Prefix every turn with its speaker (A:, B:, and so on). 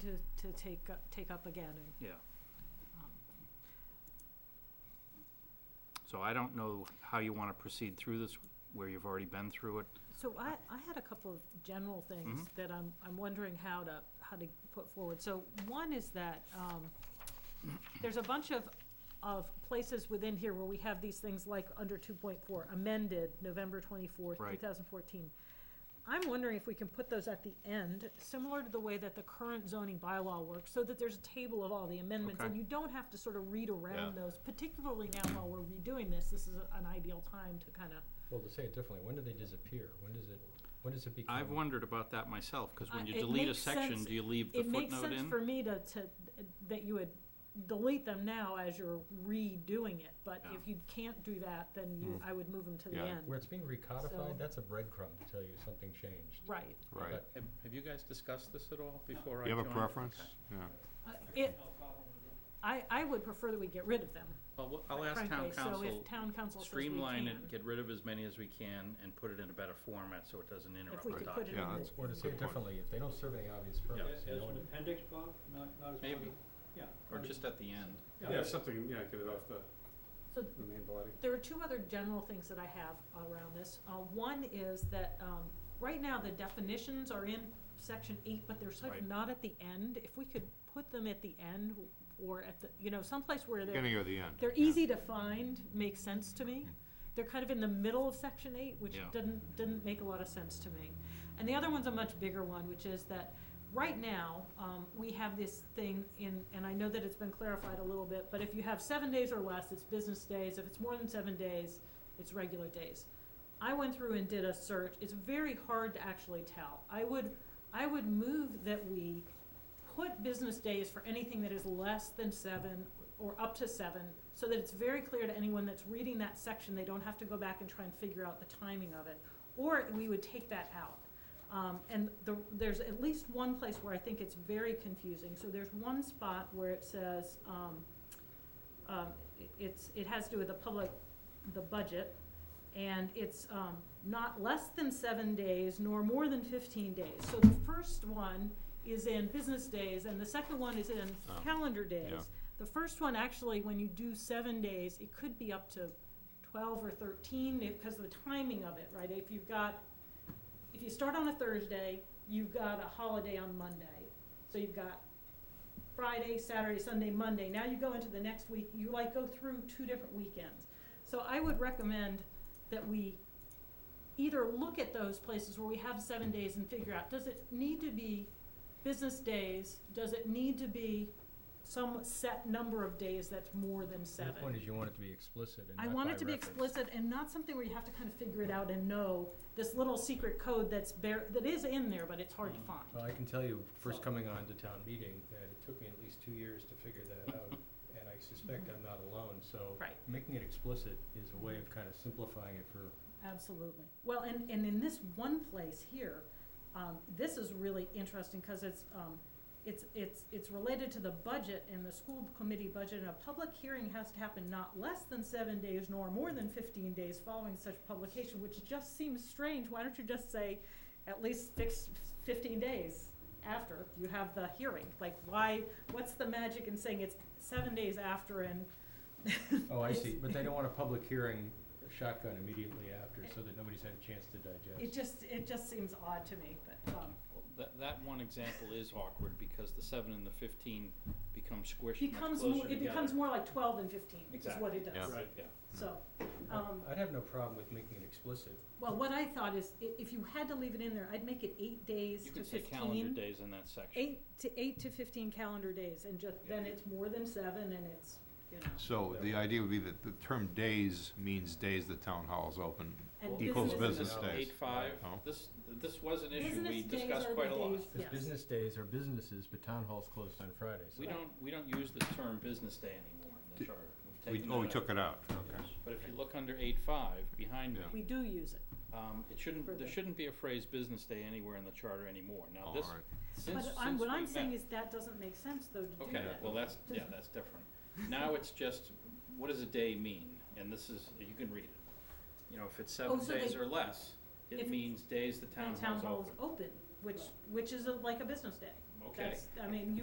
A: to, to take, up- take up again and,
B: Yeah,
A: um,
B: so I don't know how you want to proceed through this, where you've already been through it.
A: So I, I had a couple of general things
B: Mm-hmm.
A: that I'm, I'm wondering how to, how to put forward. So one is that, um, there's a bunch of, of places within here where we have these things like under two point four amended November twenty-fourth, two
B: Right.
A: thousand fourteen. I'm wondering if we can put those at the end, similar to the way that the current zoning bylaw works, so that there's a table of all the amendments. And
B: Okay.
A: you don't have to sort of read around
C: Yeah.
A: those, particularly now while we're redoing this, this is a- an ideal time to kind of
D: Well, to say it differently, when do they disappear? When does it, when does it become?
B: I've wondered about that myself, because when
A: I-
B: you
A: Uh, it
B: delete a
A: makes
B: section,
A: sense-
B: do you leave the
A: it makes
B: footnote
A: sense
B: in?
A: for me to, to, that you would delete them now as you're redoing it, but
B: Yeah.
E: Oh.
A: if you can't do that, then
E: Hmm.
A: you, I would move them to the
C: Yeah.
A: end.
D: Where it's being
A: So-
D: recodified, that's a breadcrumb to tell you something changed.
A: Right.
C: Right.
D: But
E: Have have you guys discussed this at all before I
C: You
E: joined?
C: have a preference? Yeah.
A: Uh, It, I, I would prefer that we get rid of them,
E: Well, we'll- I'll
A: quite
E: ask
A: frankly,
E: town
A: so if
E: council,
A: town council says we can,
E: streamline it, get rid of as many as we can, and put it in a better format so it doesn't
A: if
E: interrupt
A: we
E: the
A: could put
E: document.
A: it in
C: Yeah,
A: the,
C: that's-
D: Or to say it
C: Good point.
D: differently, if they don't serve any obvious
E: Yeah.
D: purpose, you
F: As
D: know,
F: an appendix, Bob, not, not as. part of-
E: Maybe.
F: Yeah.
E: Or just at the end.
F: Yeah.
G: Yeah, something, yeah, get it off the,
A: so
G: the main body.
A: there are two other general things that I have around this. Uh, one is that, um, right now, the definitions are in section eight, but they're sort
B: Right.
A: of not at the end. If we could put them at the end or at the, you know, someplace where they're,
C: Beginning or the end?
A: they're
C: yeah.
A: easy to find, makes sense to me. They're kind of in the middle of section eight, which
B: Yeah.
A: doesn't, doesn't make a lot of sense to me. And the other one's a much bigger one, which is that right now, um, we have this thing in, and I know that it's been clarified a little bit, but if you have seven days or less, it's business days. If it's more than seven days, it's regular days. I went through and did a search. It's very hard to actually tell. I would, I would move that we put business days for anything that is less than seven or up to seven, so that it's very clear to anyone that's reading that section, they don't have to go back and try and figure out the timing of it. Or we would take that out. Um, and the, there's at least one place where I think it's very confusing. So there's one spot where it says, um, um, it- it's, it has to do with the public, the budget, and it's, um, not less than seven days nor more than fifteen days. So the first one is in business days, and the second one is in
C: Oh,
A: calendar days.
C: yeah.
A: The first one, actually, when you do seven days, it could be up to twelve or thirteen, because of the timing of it, right? If you've got, if you start on a Thursday, you've got a holiday on Monday, so you've got Friday, Saturday, Sunday, Monday. Now you go into the next week, you like go through two different weekends. So I would recommend that we either look at those places where we have seven days and figure out, does it need to be business days? Does it need to be some set number of days that's more than
D: the
A: seven?
D: point is you want it to be explicit and
A: I
D: not
A: want
D: by
A: it to be
D: reference.
A: explicit and not something where you have to kind of figure it out and know this little secret code that's bare, that is in there, but it's hard
D: Mm.
A: to find.
D: Well, I can tell you, first coming on to town meeting, that it took me at least two years to figure that out, and I suspect I'm not alone, so.
A: Right.
D: Making it explicit is a way of kind of simplifying it for
A: Absolutely. Well, and, and in this one place here, um, this is really interesting because it's, um, it's, it's, it's related to the budget and the school committee budget. And a public hearing has to happen not less than seven days nor more than fifteen days following such publication, which just seems strange. Why don't you just say at least six, fifteen days after you have the hearing? Like, why, what's the magic in saying it's seven days after and?
D: Oh, I
A: it's-
D: see, but they don't want a public hearing shotgun immediately after, so that nobody's had a chance to
A: It
D: digest.
A: just, it just seems odd to me, but, um,
B: Well, That, that one example is awkward, because the seven and the fifteen become squished much
A: becomes
B: closer
A: more, it
B: together.
A: becomes more like twelve and fifteen, is what it does.
C: Yeah.
G: Right.
B: Yeah.
A: So, um,
D: I'd have no problem with making it explicit.
A: well, what I thought is, i- if you had to leave it in there, I'd make it eight days
B: You
A: to
B: could say calendar
A: fifteen.
B: days in that section.
A: Eight to, eight to fifteen calendar days, and just, then it's more than seven, and it's, you know,
C: So the idea would be that the term days means days the town hall is open.
A: and business.
C: Equals business
D: business
C: days.
B: Eight, five,
C: Oh.
B: this, this was an issue we
A: Business days
B: discussed
A: are the
B: quite a lot.
A: days-
D: Because
A: yes.
D: business days are businesses, but town hall's closed on Fridays.
B: We don't, we don't use the term business day anymore in the
C: Did-
B: charter. We've
C: We,
B: taken
C: oh,
B: that
C: we
B: out.
C: took it out, okay.
B: But if you look under eight five, behind me,
C: Yeah.
A: We do use it.
B: um, it shouldn't,
A: For
B: there
A: the-
B: shouldn't be a phrase business day anywhere in the charter anymore. Now,
C: All
B: this,
C: right.
B: since,
A: But
B: since
A: I'm, what
B: we
A: I'm saying
B: met-
A: is that doesn't make sense, though, to do that.
B: Okay, well, that's, yeah, that's different. Now it's just, what does a day mean? And this is, you can read it. You know, if it's
A: Oh,
B: seven
A: so
B: days
A: they-
B: or less,
A: if-
B: it means days the
A: And
B: town
A: town
B: hall's
A: hall is
B: open.
A: open, which, which is a- like a business day.
B: Okay.
A: That's, I mean, you